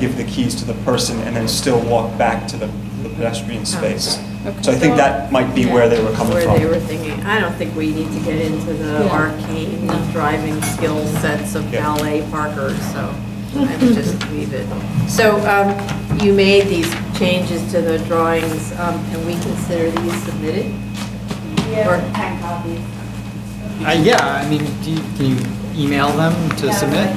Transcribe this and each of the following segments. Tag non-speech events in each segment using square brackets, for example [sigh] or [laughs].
give the keys to the person and then still walk back to the the pedestrian space. Okay. So I think that might be where they were coming Oh, Where they were from. thinking, I don't think we need to get into the Yeah. arcane driving skill sets of Yeah. ballet parkers, so I [laughs] would just leave it. So um, you made these changes to the drawings, um, and we consider these submitted? [laughs] Or- Yeah, ten copies. Uh, yeah, I mean, do you, can you email them to submit?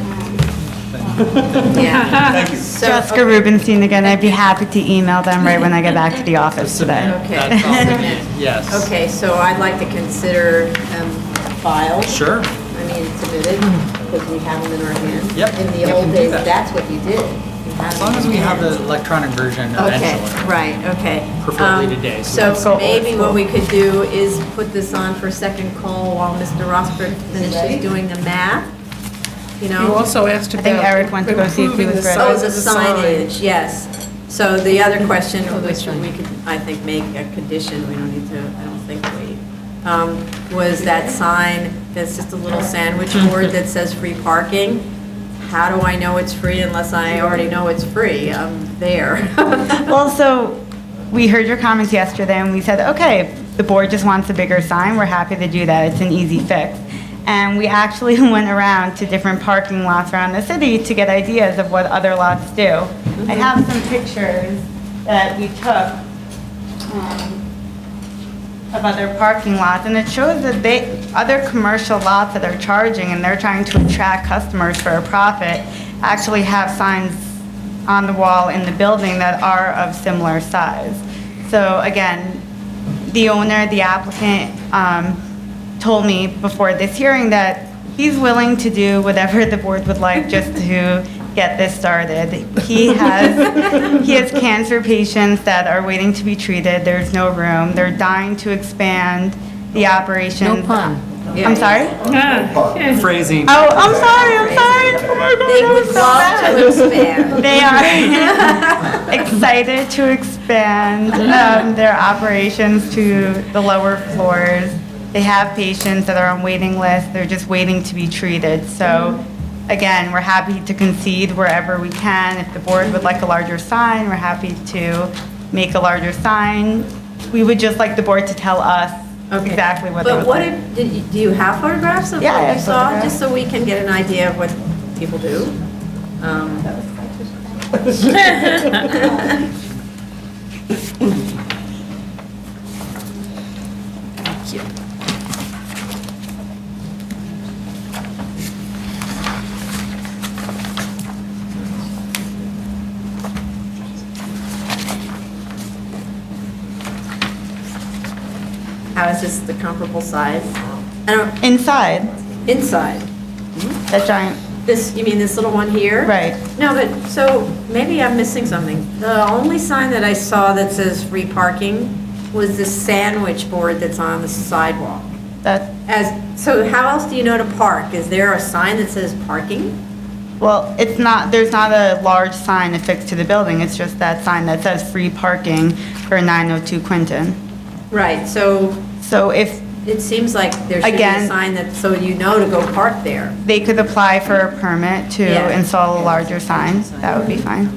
Yeah. Thank you. So, Jessica okay. Rubenstein again, I'd be happy to email them right when I get back to the office today. Okay. That's all we need, yes. Okay, so I'd like to consider um, filed. Sure, I mean, submitted, because we have them in our hands. Yep, In we the old can do days, that. that's what you did. You had as long them as in we your have hands. the electronic version Okay, eventually. right, okay. Preferably Um, today, so So let's go old maybe what we could do is put this on for second call while Mr. Rosberg finishes doing the math, you You know? also asked about. think Eric went to go see if he improving was the ready. Oh, size the of the sign. signage, yes. So the [laughs] other question, which we could, I think, make a condition, we don't need to, I don't think we, um, was that sign that's just a little sandwich board that says free parking. How do I know it's free unless I already know it's free? I'm there. [laughs] Well, so, we heard your comments yesterday, and we said, okay, if the board just wants a bigger sign, we're happy to do that, it's an easy fix. And we actually [laughs] went around to different parking lots around the city to get ideas of what other lots do. Mm-hmm. I have some pictures that we took um, of other parking lots, and it shows that they, other commercial lots that are charging, and they're trying to attract customers for a profit, actually have signs on the wall in the building that are of similar size. So again, the owner, the applicant, um, told me before this hearing that he's willing to do whatever [laughs] the board would like just to get this started. He has, he has cancer patients that are waiting to be treated. There's no room. They're dying to expand the operations. No pun. Yeah. I'm sorry? Phrasing, Oh, I'm sorry, I'm sorry. Oh my God, They that would was so love bad. to expand. [laughs] They are excited to expand um, their operations to the lower floors. They have patients that are on waiting lists, they're just waiting to be treated. So again, we're happy to concede wherever we can. If the board would like a larger sign, we're happy to make a larger sign. We would just like the board to tell us Okay. exactly what they But would what, like. if- did you, do you have photographs of Yeah, I what you have saw? photographs. Just so we can get an idea of what people do? Um, How is this the comparable size? I don't, Inside, inside, that giant, this, you mean this little one here? right. No, but, so, maybe I'm missing something. The only sign that I saw that says free parking was the sandwich board that's on the sidewalk. That, As, so how else do you know to park? Is there a sign that says parking? Well, it's not, there's not a large sign affixed to the building, it's just that sign that says free parking for 902 Quinton. Right, so So if it seems like there should be a Again- sign that, so you know to go park there. they could apply for a permit Yeah. to install a larger sign, that would be fine.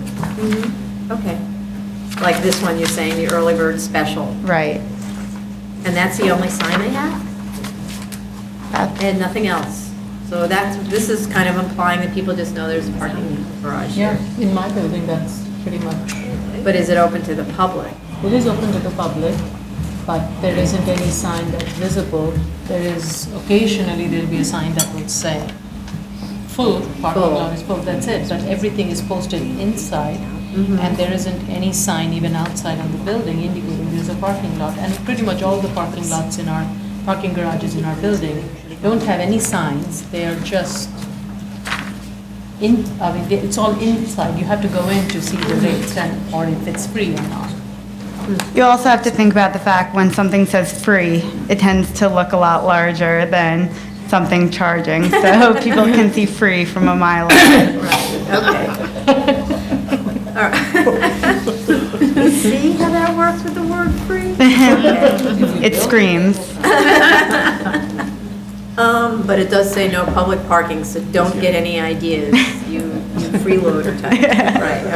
Okay. Like this one you're saying, the early bird special. Right. And that's the only sign they have? That- And nothing else? So that's, this is kind of implying that people just know there's a parking garage here. in my building, that's pretty much, But is it open to the public? it is open to the public, but there isn't any sign that's visible. There is, occasionally there'll be a sign that would say, full, parking Full. lot is full, that's it. But everything is posted inside, and there isn't any sign even outside on the building indicating there's a parking lot. And pretty much all the parking lots in our, parking garages in our building don't have any signs. They are just in, I mean, it's all inside. You have to go in to see the rates and, or if it's free or not. You also have to think about the fact when something says free, it tends to look a lot larger than something charging, so [laughs] people can see free from a mile away. Okay. [laughs] All right. See how that works with the word free? It screams. Um, but it does say no public parking, so don't get any ideas, you you freeloader type. Right,